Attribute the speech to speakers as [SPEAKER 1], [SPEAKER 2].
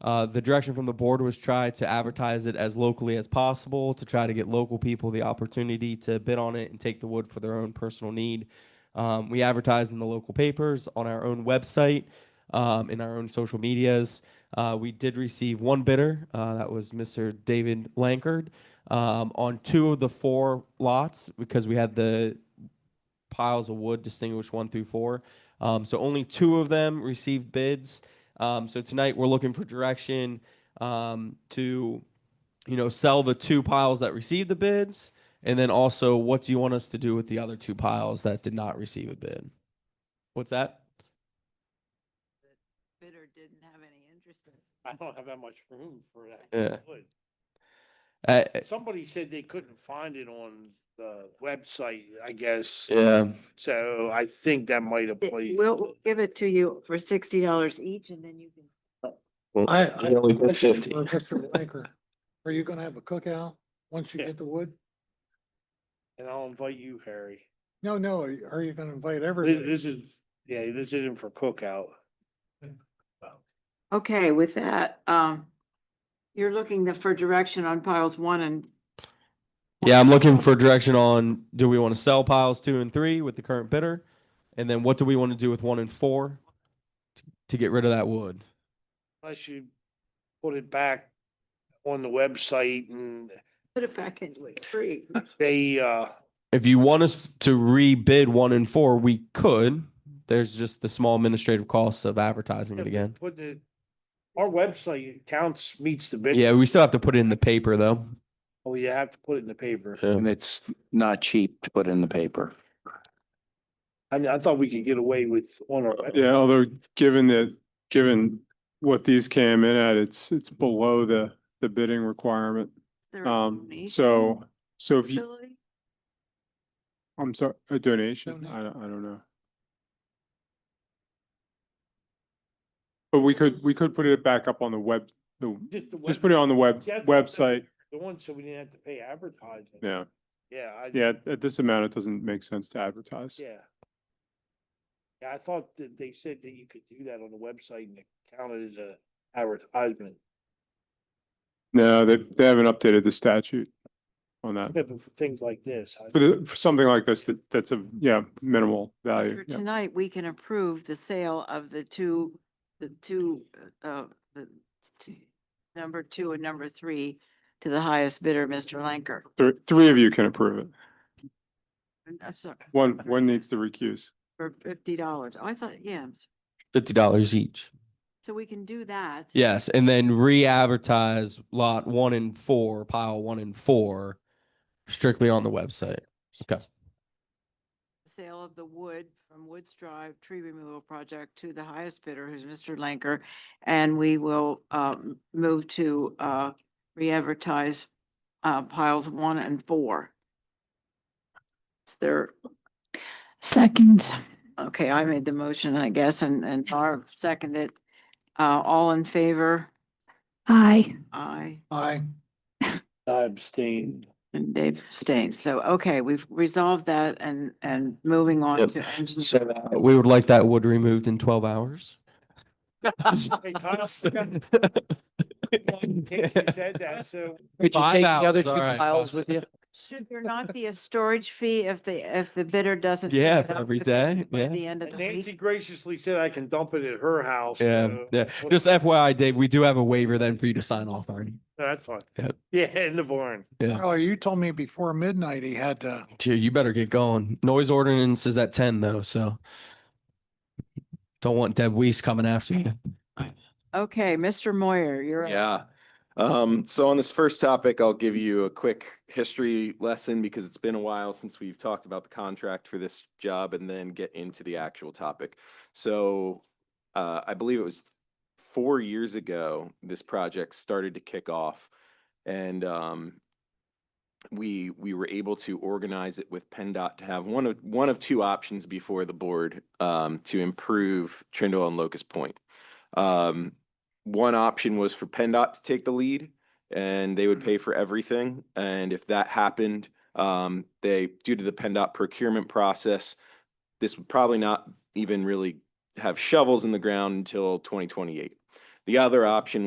[SPEAKER 1] Uh, the direction from the board was try to advertise it as locally as possible, to try to get local people the opportunity to bid on it and take the wood for their own personal need. Um, we advertise in the local papers, on our own website, um, in our own social medias. Uh, we did receive one bidder, uh, that was Mr. David Lankard, um, on two of the four lots, because we had the piles of wood distinguished one through four. Um, so only two of them received bids. Um, so tonight we're looking for direction um, to, you know, sell the two piles that received the bids, and then also what do you want us to do with the other two piles that did not receive a bid? What's that?
[SPEAKER 2] bidder didn't have any interest in. it.
[SPEAKER 3] I don't have that much room for that.
[SPEAKER 1] Yeah.
[SPEAKER 3] wood.
[SPEAKER 1] Uh,
[SPEAKER 3] Somebody said they couldn't find it on the website, I guess.
[SPEAKER 1] yeah.
[SPEAKER 3] So I think that might have played.
[SPEAKER 2] We'll give it to you for sixty dollars each and then you can.
[SPEAKER 4] I, I.
[SPEAKER 1] only put
[SPEAKER 4] question
[SPEAKER 1] 50.
[SPEAKER 4] for Mr. Blanker, are you gonna have a cookout once you
[SPEAKER 3] Yeah.
[SPEAKER 4] get the wood?
[SPEAKER 3] And I'll invite you, Harry.
[SPEAKER 4] No, no, are you- are you gonna invite
[SPEAKER 3] This,
[SPEAKER 4] everybody?
[SPEAKER 3] this is, yeah, this isn't for cookout.
[SPEAKER 2] Okay, with that, um, you're looking the- for direction on piles one and.
[SPEAKER 1] Yeah, I'm looking for direction on do we want to sell piles two and three with the current bidder, and then what do we want to do with one and four to, to get rid of that wood?
[SPEAKER 3] Unless you put it back on the website and
[SPEAKER 2] Put it back into a tree.
[SPEAKER 3] they, uh,
[SPEAKER 1] If you want us to rebid one and four, we could. There's just the small administrative costs of advertising it again.
[SPEAKER 3] put it, our website counts, meets the bid.
[SPEAKER 1] Yeah, we still have to put it in the paper though.
[SPEAKER 3] Oh, you have to put it in the paper.
[SPEAKER 5] And it's not cheap to put in the paper.
[SPEAKER 3] I mean, I thought we could get away with on our. web-
[SPEAKER 6] Yeah, although given that, given what these came in at, it's, it's below the, the bidding requirement.
[SPEAKER 2] There a
[SPEAKER 6] Um,
[SPEAKER 2] donation
[SPEAKER 6] so, so if you,
[SPEAKER 2] facility?
[SPEAKER 6] I'm sorry, a donation?
[SPEAKER 4] Donate.
[SPEAKER 6] I don't, I don't know. But we could, we could put it back up on the web, the,
[SPEAKER 3] Just the
[SPEAKER 6] just
[SPEAKER 3] web-
[SPEAKER 6] put it on the web,
[SPEAKER 3] Yeah, the-
[SPEAKER 6] website.
[SPEAKER 3] The one, so we didn't have to pay advertising.
[SPEAKER 6] Yeah,
[SPEAKER 3] Yeah. I-
[SPEAKER 6] yeah, at- at this amount, it doesn't make sense to advertise.
[SPEAKER 3] Yeah. Yeah, I thought that they said that you could do that on the website and it counted as a advertisement.
[SPEAKER 6] No, they, they haven't updated the statute on that.
[SPEAKER 3] Yeah, But for things like this. I-
[SPEAKER 6] For, the- for something like this, that, that's a, yeah, minimal value.
[SPEAKER 2] For
[SPEAKER 6] uh, yeah.
[SPEAKER 2] tonight, we can approve the sale of the two, the two, uh, the t- number two and number three to the highest bidder, Mr. Lanker.
[SPEAKER 6] Three, three of you can approve it.
[SPEAKER 2] I'm sorry,
[SPEAKER 6] One, one needs to recuse.
[SPEAKER 2] for fifty dollars. I thought, yeah, I'm s-
[SPEAKER 1] Fifty dollars each.
[SPEAKER 2] so we can do that.
[SPEAKER 1] Yes, and then re-advertise lot one and four, pile one and four, strictly on the website. Okay.
[SPEAKER 2] Sale of the wood from Woods Drive Tree Removal Project to the highest bidder, who's Mr. Lanker. And we will, um, move to, uh, re-advertise, uh, piles one and four. It's their,
[SPEAKER 7] Second.
[SPEAKER 2] okay, I made the motion, I guess, and, and Barb seconded. Uh, all in favor?
[SPEAKER 7] Aye.
[SPEAKER 2] Aye.
[SPEAKER 4] I,
[SPEAKER 3] I abstain.
[SPEAKER 2] And Dave abstains. So, okay, we've resolved that and, and moving on
[SPEAKER 5] Yep.
[SPEAKER 2] to engine.
[SPEAKER 5] So uh, that-
[SPEAKER 1] We would like that wood removed in twelve hours.
[SPEAKER 3] Hey, Kyle, you said that, so
[SPEAKER 5] Could you
[SPEAKER 1] Five
[SPEAKER 5] take the other
[SPEAKER 1] hours,
[SPEAKER 5] two
[SPEAKER 1] all right,
[SPEAKER 5] piles
[SPEAKER 1] five.
[SPEAKER 5] with you?
[SPEAKER 2] Should there not be a storage fee if the, if the bidder doesn't? pick
[SPEAKER 1] Yeah,
[SPEAKER 2] it
[SPEAKER 1] for
[SPEAKER 2] up
[SPEAKER 1] every
[SPEAKER 2] with the-
[SPEAKER 1] day,
[SPEAKER 2] by
[SPEAKER 1] yeah.
[SPEAKER 2] The end of the
[SPEAKER 3] Nancy
[SPEAKER 2] week?
[SPEAKER 3] graciously said I can dump it at her house.
[SPEAKER 1] Yeah,
[SPEAKER 3] so-
[SPEAKER 1] yeah. Just FYI, Dave, we do have a waiver then for you to sign off on.
[SPEAKER 3] That's fine.
[SPEAKER 1] Yep.
[SPEAKER 3] Yeah, in the barn.
[SPEAKER 4] oh, you told me before midnight he had to,
[SPEAKER 1] Dude, you better get going. Noise ordinance is at ten though, so don't want Deb Weiss coming after you.
[SPEAKER 2] Okay, Mr. Moyer, you're. up.
[SPEAKER 8] Yeah. Um, so on this first topic, I'll give you a quick history lesson because it's been a while since we've talked about the contract for this job and then get into the actual topic. So, uh, I believe it was four years ago, this project started to kick off and, um, we, we were able to organize it with PennDOT to have one of, one of two options before the board, um, to improve Trindle and Locust Point. Um, one option was for PennDOT to take the lead and they would pay for everything. And if that happened, um, they, due to the PennDOT procurement process, this would probably not even really have shovels in the ground until twenty twenty-eight. The other option